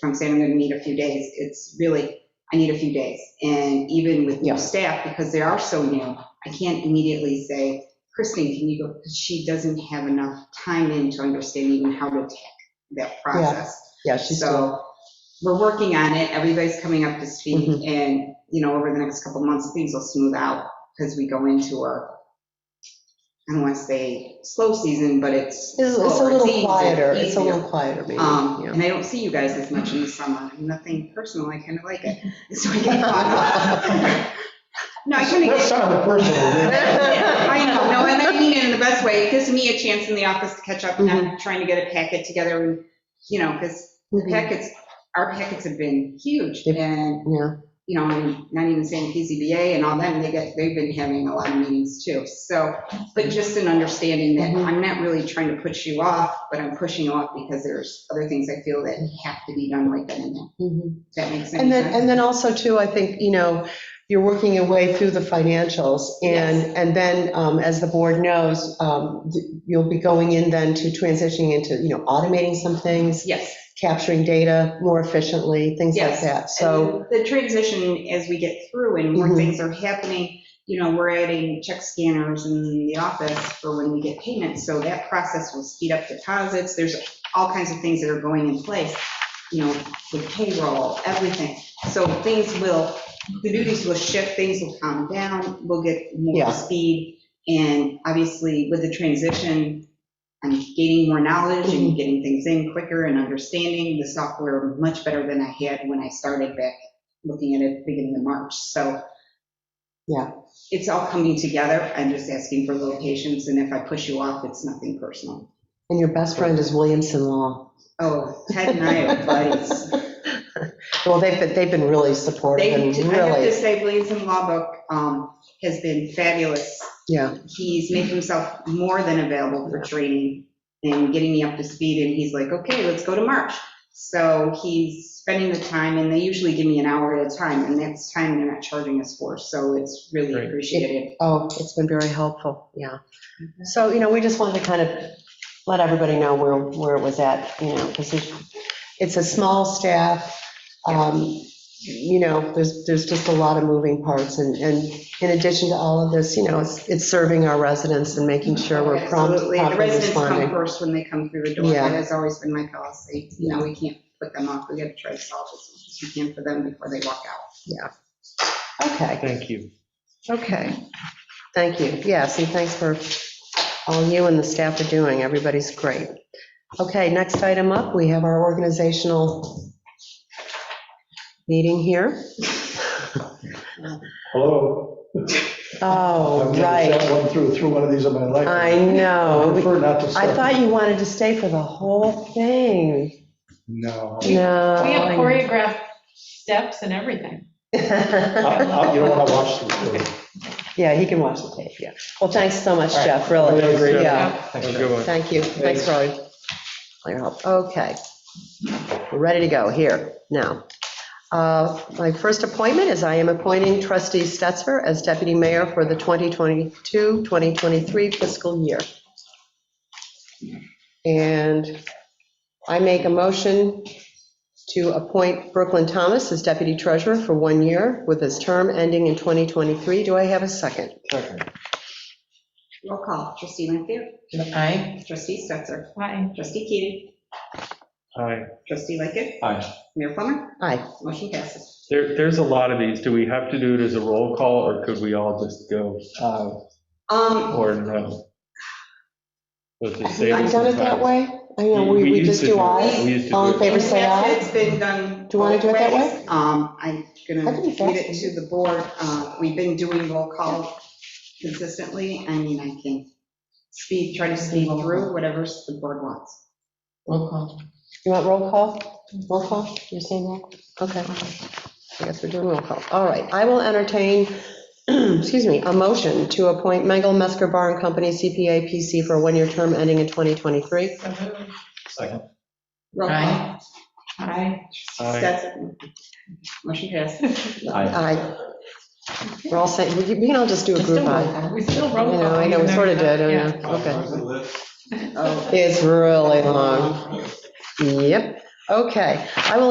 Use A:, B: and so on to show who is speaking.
A: from saying I'm going to need a few days, it's really, I need a few days. And even with
B: Yeah.
A: new staff, because they are so new, I can't immediately say, Kristen, can you go, because she doesn't have enough time in to understand even how to attack that process.
B: Yeah, she's doing,
A: So we're working on it, everybody's coming up to speed,
B: Mhm.
A: and, you know, over the next couple months, things will smooth out because we go into our, I don't want to say slow season, but it's.
B: it's it's a
A: slower, it's
B: little
A: easier,
B: quieter, it's a
A: easier.
B: little quieter, maybe,
A: Um,
B: yeah.
A: and I don't see you guys as much in the summer, nothing personal, I kind of like it. So I get caught up. No, I kind of
C: That's
A: get,
C: not a personal.
A: I know, no, and I mean it in the best way, it gives me a chance in the office to catch up,
B: Mm-hmm.
A: not trying to get a packet together, and, you know, because the
B: Mhm.
A: packets, our packets have been huge,
B: Yep.
A: and,
B: Yeah,
A: you know, and not even saying PZBA and all that, and they get, they've been having a lot of meetings too, so, but just an understanding that
B: Mhm.
A: I'm not really trying to push you off, but I'm pushing you off because there's other things I feel that have to be done right then and there.
B: mhm.
A: Does that make sense?
B: And then, and then also too, I think, you know, you're working your way through the financials and, and then, um, as the board knows, um, you'll be going in then to transitioning into, you know, automating some things,
A: Yes.
B: capturing data more efficiently, things like
A: Yes.
B: that. So,
A: And The transition, as we get through and more
B: Mhm.
A: things are happening, you know, we're adding check scanners in the office for when we get payments, so that process will speed up deposits, there's all kinds of things that are going in place, you know, with payroll, everything. So things will, the duties will shift, things will calm down, we'll get more
B: Yeah.
A: speed, and obviously with the transition, I'm gaining more knowledge and getting things in quicker and understanding the software much better than I had when I started back looking at it beginning of March. So.
B: Yeah.
A: It's all coming together. I'm just asking for locations, and if I push you off, it's nothing personal.
B: and your best friend is Williamson Law.
A: Oh, Ted and I are buddies.
B: Well, they've, been they've been really supportive
A: They, I
B: and
A: have to
B: really,
A: say, Williamson Law Book um, has been fabulous
B: yeah,
A: he's made himself more than available for training and getting me up to speed, and he's like, okay, let's go to March. So he's spending the time, and they usually give me an hour at a time, and that's time they're not charging us for, so it's really
C: Great.
A: appreciated.
B: oh, it's been very helpful, yeah. So, you know, we just wanted to kind of let everybody know where, where it was at, you know, because it's a small staff. um, You know, there's, there's just a lot of moving parts, and, and in addition to all of this, you know, it's, it's serving our residents and making sure we're prompt,
A: Absolutely, the
B: properly
A: residents come
B: responding.
A: first when they come through the door,
B: Yeah.
A: that has always been my policy, you know, we can't put them off, we gotta try to solve this as we can for them before they walk out.
B: Okay,
C: Thank you.
B: okay, thank you, yes, and thanks for all you and the staff are doing, everybody's great. Okay, next item up, we have our organizational meeting here.
C: Hello.
B: Oh,
C: I've never
B: right.
C: shot One through, through one of these in my life.
B: I
C: I
B: know.
C: prefer not to.
B: I thought you wanted to stay for the whole thing.
C: No.
B: No.
D: We have
B: I know.
D: choreographed steps and everything.
C: I- I- You don't want to watch this. through.
B: Yeah, he can watch the tape, yeah. Well, thanks so much, Jeff, really.
C: Thanks, Jeff.
B: Oh, Yeah,
C: Thanks, Jeff.
B: thank you. Thanks for all your- all your help. Okay. We're ready to go here now. Uh, My first appointment is I am appointing trustee Stetser as deputy mayor for the 2022-2023 fiscal year. And I make a motion to appoint Brooklyn Thomas as deputy treasurer for one year with his term ending in 2023. Do I have a second?
C: Second.
A: Roll call, trustee Lanfair,
D: Aye.
A: trustee Stetser,
D: Aye.
A: trustee Keating,
E: Hi,
A: trustee Lickett,
C: Aye.
A: Mayor Plummer,
B: Aye.
A: motion passes.
E: there, there's a lot of these. Do we have to do it as a roll call or could we all just go aye
A: Um,
E: or no? Let's just say
B: I've done it that way. I know,
E: We-
B: we
E: we
B: we
E: used
B: just
E: to
B: do
E: do it.
B: ayes.
E: We used to
B: All in
E: do it.
B: favor, say aye.
A: It's been done.
B: Do you wanna do it that way?
A: both ways. Um, I'm
B: I
A: gonna
B: think
A: read it to the board. Uh, we've been doing roll call consistently. I mean, I can speed, try to speed through whatever the board wants.
B: Roll call. You want roll call? Roll call? You're saying that? Okay. I guess we're doing roll call. All right. I will entertain, excuse me, a motion to appoint Mengel Mesker Bar and Company CPA PC for a one-year term ending in 2023.
D: So moved.
C: Second.
A: Roll call.
D: Aye.
E: Aye.
A: Stetser. Motion passes.
B: Aye. We're all saying, we can we can all just do a
D: We still
B: group
D: roll
B: aye.
D: call. We still
B: I
D: roll
B: know,
D: call.
B: I know, we
D: even though
B: sort of
D: we're not-
B: did, I
D: yeah.
B: know. Okay.
A: Oh.
B: It's really long. Yep. Okay. I will